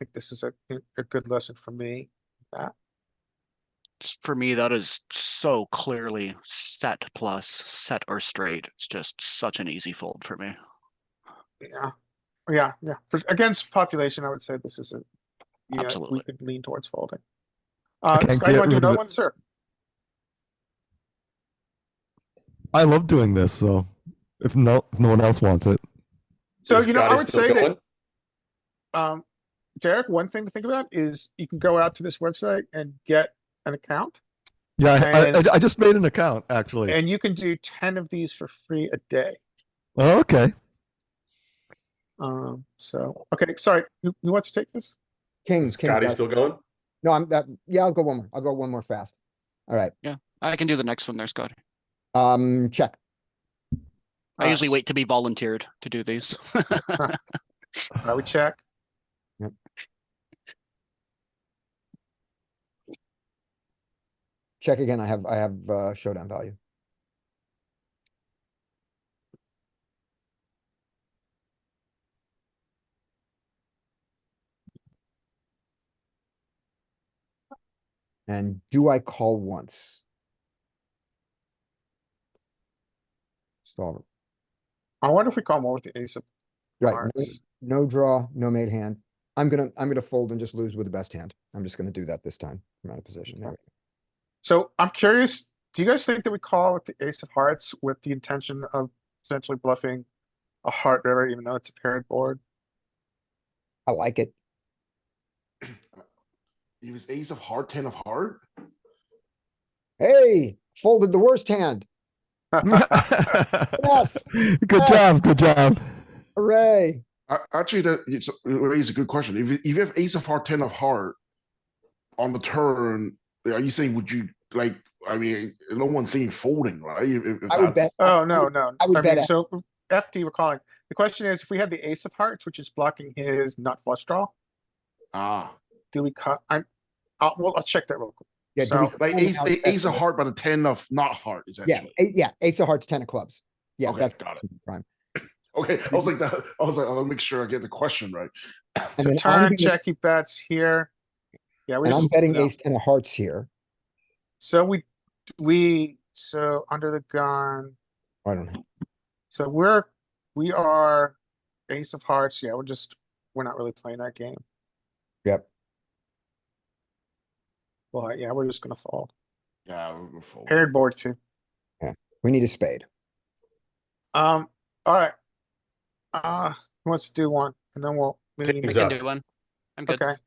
think this is a, a good lesson for me. s- for me, that is so clearly set plus set or straight. It's just such an easy fold for me. Yeah, yeah, yeah. For- Against population, I would say this is a. yeah, Absolutely. We could lean towards folding. Uh, can't Scott, you get wanna do rid of another it. one, sir? I love doing this, so if no if no one else wants it. So, Is you know, I Gotti would still say that, going? um, Derek, one thing to think about is you can go out to this website and get an account. Yeah, I, I, And- I just made an account actually. And you can do ten of these for free a day. oh, okay. Um, so, okay, sorry, who, who wants to take this? Kings, king. Scotty's guys. still going? No, I'm that, yeah, I'll go one more. I'll go one more fast. All right, I can do the next one there, Scott. um, check. I Uh, usually wait to be volunteered to do these. I would check. Yep. Check again. I have, I have, uh, showdown value. And do I call once? Solver, I wonder if we call more with the ace of right, no- hearts. no draw, no made hand. I'm gonna, I'm gonna fold and just lose with the best hand. I'm just gonna do that this time. I'm out of position. There we go. So I'm curious, do you guys think that we call with the ace of hearts with the intention of essentially bluffing a heart river, even though it's a paired board? I like it. He was ace of heart, ten of heart. Hey, folded the worst hand. Yes. Good job. Good job. Hooray. A- Actually, that it's it raises a good question. If you- if you have ace of heart, ten of heart on the turn, are you saying would you like? I mean, no one's saying folding, right? If- if- if I would that's- bet. Oh, no, no. I would mean, bet it. So FT we're calling. The question is, if we had the ace of hearts, which is blocking his nut flush draw, Ah, do we cut? I'm, I'll, well, I'll check that real quick. Yeah, do we So, like only ace have a- ace of equity. heart, but a ten of not heart is Yeah, actually. a- yeah, ace of hearts, ten of clubs. Yeah, Okay, that's got that's prime. Okay, I was like that. I was like, I'll make sure I get the question right. And So then I'm turn, gonna- check, he bets here. Yeah, we And I'm just, betting no. ace ten of hearts here. so we, we, so under the gun, I don't know. so we're, we are ace of hearts. Yeah, we're just, we're not really playing that game. Yep. Well, yeah, we're just gonna fold. Yeah, we're gonna fold. Paired board too. We need a spade. Um, alright. Uh, who wants to do one? And then we'll. maybe- I Kings can up. do one. I'm good. Okay.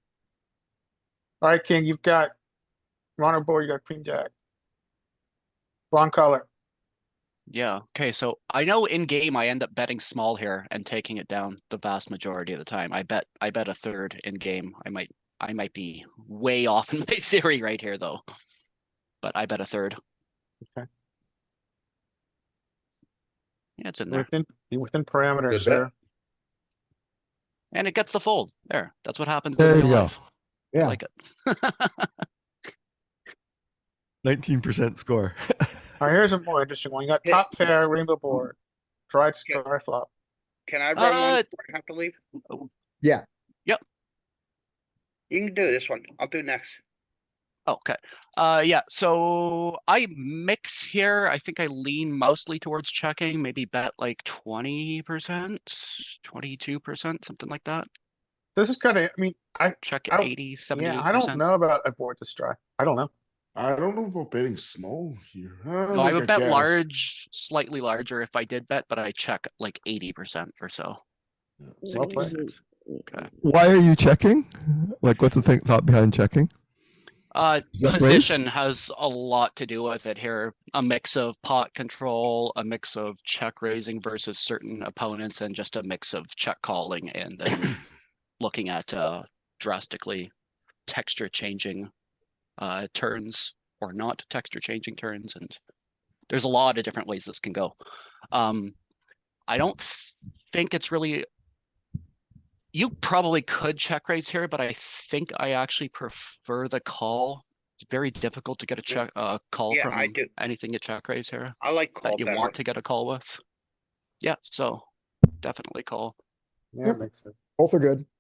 Alright, King, you've got. you're on our board, you got queen jack. Wrong color. Yeah. Okay. So I know in game I end up betting small here and taking it down the vast majority of the time. I bet I bet a third in game. I might I might be way off in my theory right here though. But I bet a third. Okay. Yeah, it's in You're there. Within, you're within Good parameters bet. there. And it gets the fold. There. That's what happens There in real you go. life. I Yeah. like it. Nineteen percent score. Alright, here's a more interesting one. You got Yeah. top pair, rainbow board, dried Yeah. star flop. Can I run one Uh, before I have to leave? Yeah. Yep. You can do this one. I'll do next. Okay. Uh, yeah, so I mix here. I think I lean mostly towards checking, maybe bet like 20%, 22%, something like that. This is kinda, I mean, I, Check I- 80, yeah, I don't 70%. know about a board to strike. I don't know. I don't know about betting small here. No, I would bet large, slightly larger if I did bet, but I check like 80% or so. Well played. 66. Okay. Why are you checking? Like, what's the thing, thought behind checking? Uh, Yeah, raise? position has a lot to do with it here. A mix of pot control, a mix of check raising versus certain opponents, and just a mix of check calling and then looking at uh, drastically texture changing uh, turns or not texture changing turns. And there's a lot of different ways this can go. Um, I don't th- think it's really. You probably could check raise here, but I think I actually prefer the call. It's very difficult to get a check uh, call Yeah, from I do. anything you check raise here I like call that you better. want to get a call with. Yeah, so definitely call. Yeah, Yep. makes sense. Both are good.